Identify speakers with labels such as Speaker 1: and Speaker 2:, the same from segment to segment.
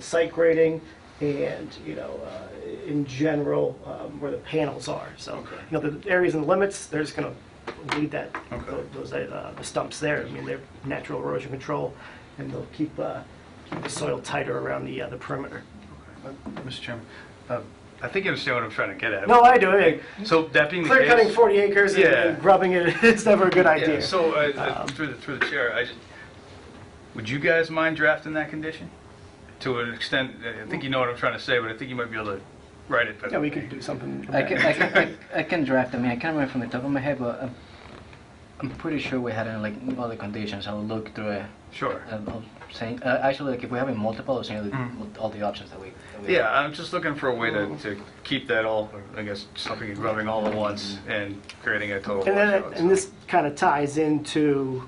Speaker 1: site grading and, you know, uh, in general, um, where the panels are. So,
Speaker 2: Okay.
Speaker 1: you know, the areas and limits, they're just going to leave that,
Speaker 2: Okay.
Speaker 1: those, uh, the stumps there. I mean, they're natural erosion control, and they'll keep uh, keep the soil tighter around the uh, the perimeter.
Speaker 3: Mr. Chairman, uh, I think you understand what I'm trying to get at.
Speaker 1: No, I do. I mean,
Speaker 3: So that being the case.
Speaker 1: Clear cutting 40 acres and-
Speaker 3: Yeah.
Speaker 1: and grubbing it, it's never a good
Speaker 3: Yeah,
Speaker 1: idea.
Speaker 3: so uh,
Speaker 1: Um,
Speaker 3: uh, through the, through the chair, I just, would you guys mind drafting that condition? To an extent, uh, I think you know what I'm trying to say, but I think you might be able to write it
Speaker 1: Yeah,
Speaker 3: better.
Speaker 1: we could do something.
Speaker 4: I can, I can, I- I can draft. I mean, I can't remember from the top of my head, but I'm, I'm pretty sure we had it in like all the conditions. I'll look through it.
Speaker 3: Sure.
Speaker 4: Um, I'll say, uh, actually, like if we have it multiple, I'll send you
Speaker 3: Mm.
Speaker 4: the- all the options that we. That we
Speaker 3: Yeah, I'm just looking for a way to, to keep that all, I guess, something and grubbing all at once and creating a total
Speaker 1: And then,
Speaker 3: washout.
Speaker 1: and this kind of ties into,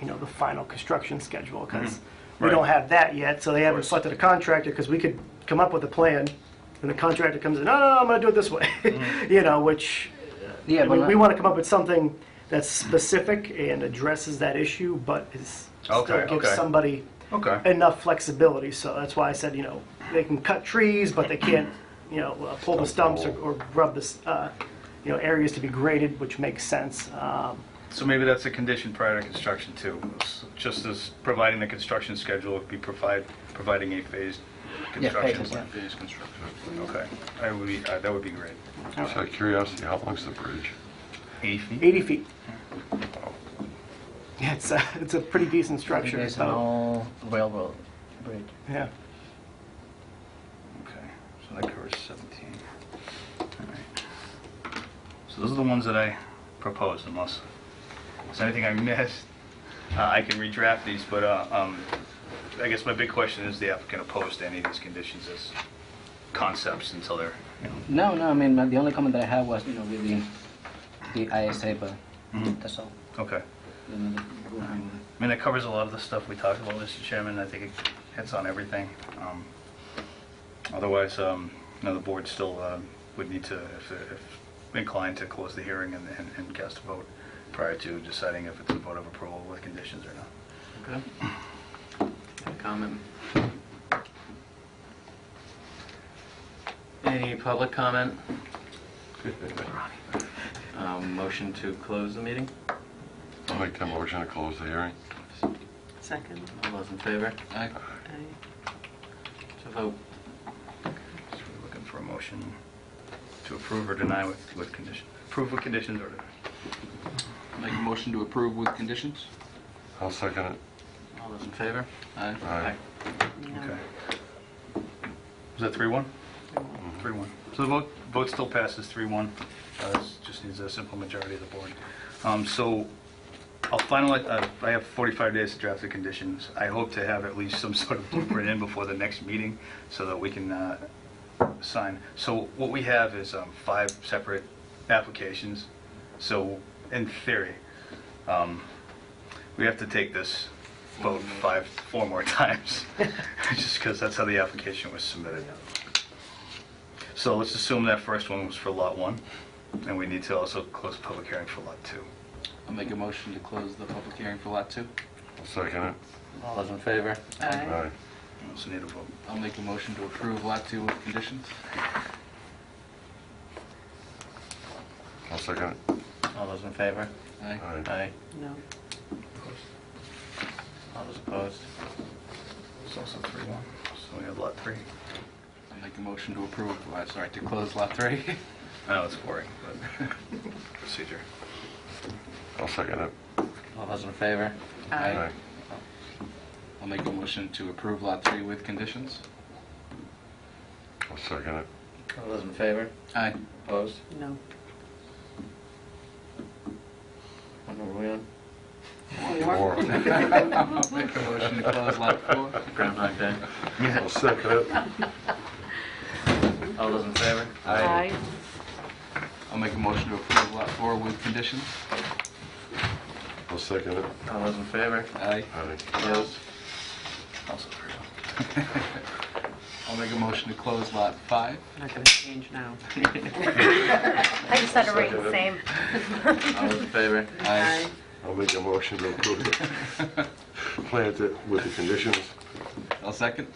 Speaker 1: you know, the final construction schedule, because we
Speaker 3: Mm-hmm. Right.
Speaker 1: don't have that yet, so they haven't
Speaker 3: course.
Speaker 1: selected a contractor, because we could come up with a plan, and the contractor comes in, no, no, no, I'm gonna do it this way,
Speaker 3: Mm-hmm.
Speaker 1: you know, which,
Speaker 4: Yeah,
Speaker 1: I
Speaker 4: but
Speaker 1: mean,
Speaker 4: not-
Speaker 1: we want to come up with something that's specific and addresses that issue, but is, still
Speaker 3: Okay,
Speaker 1: gives
Speaker 3: okay.
Speaker 1: somebody
Speaker 3: Okay,
Speaker 1: enough flexibility, so that's why I said, you know, they can cut trees, but they can't, you know, uh, pull the stumps or or grub this, uh, you know, areas to be graded, which makes sense. Um,
Speaker 3: so maybe that's a condition prior to construction too, s- just as providing the construction schedule would be provide, providing a phased construction
Speaker 4: phases,
Speaker 3: plan.
Speaker 4: yeah.
Speaker 2: Phase construction.
Speaker 3: Okay, I would be, uh, that would be great.
Speaker 2: Just out of curiosity, how long's the bridge?
Speaker 3: Eight feet?
Speaker 1: 80 feet. Yeah, it's a, it's a pretty decent
Speaker 4: It
Speaker 1: structure,
Speaker 4: is an
Speaker 1: so,
Speaker 4: old railroad bridge.
Speaker 1: yeah.
Speaker 3: Okay, so that covers 17. All right. So those are the ones that I proposed, unless there's anything I missed. Uh, I can redraft these, but uh, um, I guess my big question is the applicant opposed to any of these conditions as concepts until they're, you know,
Speaker 4: No, no. I mean, the only comment that I had was, you know, with the, the ISA, but
Speaker 1: Mm-hmm.
Speaker 3: Mhm.
Speaker 4: that's all.
Speaker 3: okay.
Speaker 4: Mm,
Speaker 3: I mean, that covers a lot of the stuff we talked about, Mr. Chairman. I think it hits on everything. Um, Otherwise, um, you know, the board still um, would need to, if if inclined, to close the hearing and- and and cast a vote prior to deciding if it's a vote of approval with conditions or not.
Speaker 5: Okay. Comment. Any public comment? Um, Motion to close the meeting?
Speaker 2: I'll make the motion to close the hearing.
Speaker 6: Second.
Speaker 5: All those in favor? Aye.
Speaker 6: Aye.
Speaker 5: To vote.
Speaker 3: So we're looking for a motion to approve or deny with with conditions. Approve with conditions or deny.
Speaker 7: Make a motion to approve with conditions?
Speaker 2: I'll second it.
Speaker 5: All those in favor?
Speaker 7: Aye.
Speaker 2: Aye.
Speaker 6: No.
Speaker 3: Okay. Was that three one? Three one. So the vote, vote still passes three one. Uh, this just needs a simple majority of the board. Um, so I'll finalize, uh, I have forty-five days to draft the conditions. I hope to have at least some sort of blueprint in before the next meeting so that we can, uh, sign. So what we have is, um, five separate applications. So in theory, um, we have to take this vote five, four more times, just because that's how the application was submitted. So let's assume that first one was for Lot 1, and we need to also close the public hearing for Lot 2.
Speaker 7: I'll make a motion to close the public hearing for Lot 2.
Speaker 2: I'll second it.
Speaker 5: All those in favor?
Speaker 6: Aye.
Speaker 2: Aye.
Speaker 3: We also need a vote.
Speaker 7: I'll make a motion to approve Lot 2 with conditions.
Speaker 2: I'll second it.
Speaker 5: All those in favor?
Speaker 7: Aye.
Speaker 2: Aye.
Speaker 5: Aye.
Speaker 6: No.
Speaker 5: All those opposed?
Speaker 3: It's also 3-1, so we have Lot 3.
Speaker 7: I'll make a motion to approve, uh, sorry, to close Lot 3.
Speaker 3: I know it's boring, but procedure.
Speaker 2: I'll second it.
Speaker 5: All those in favor?
Speaker 2: Aye.
Speaker 7: I'll make a motion to approve Lot 3 with conditions.
Speaker 2: I'll second it.
Speaker 5: All those in favor?
Speaker 7: Aye.
Speaker 5: Opposed?
Speaker 6: No.
Speaker 5: What number are we on?
Speaker 2: Four.
Speaker 7: I'll make a motion to close Lot 4.
Speaker 5: Groundhog Day.
Speaker 2: I'll second it.
Speaker 5: All those in favor?
Speaker 6: Aye.
Speaker 7: I'll make a motion to approve Lot 4 with conditions.
Speaker 2: I'll second it.
Speaker 5: All those in favor?
Speaker 7: Aye.
Speaker 2: Aye.
Speaker 5: Opposed?
Speaker 3: Also 3-1.
Speaker 7: I'll make a motion to close Lot 5.
Speaker 6: I'm not gonna change now.
Speaker 8: I just had to rate the same.
Speaker 5: All those in favor?
Speaker 7: Aye.
Speaker 2: I'll make a motion to approve it. Plant it with the conditions.
Speaker 7: I'll second.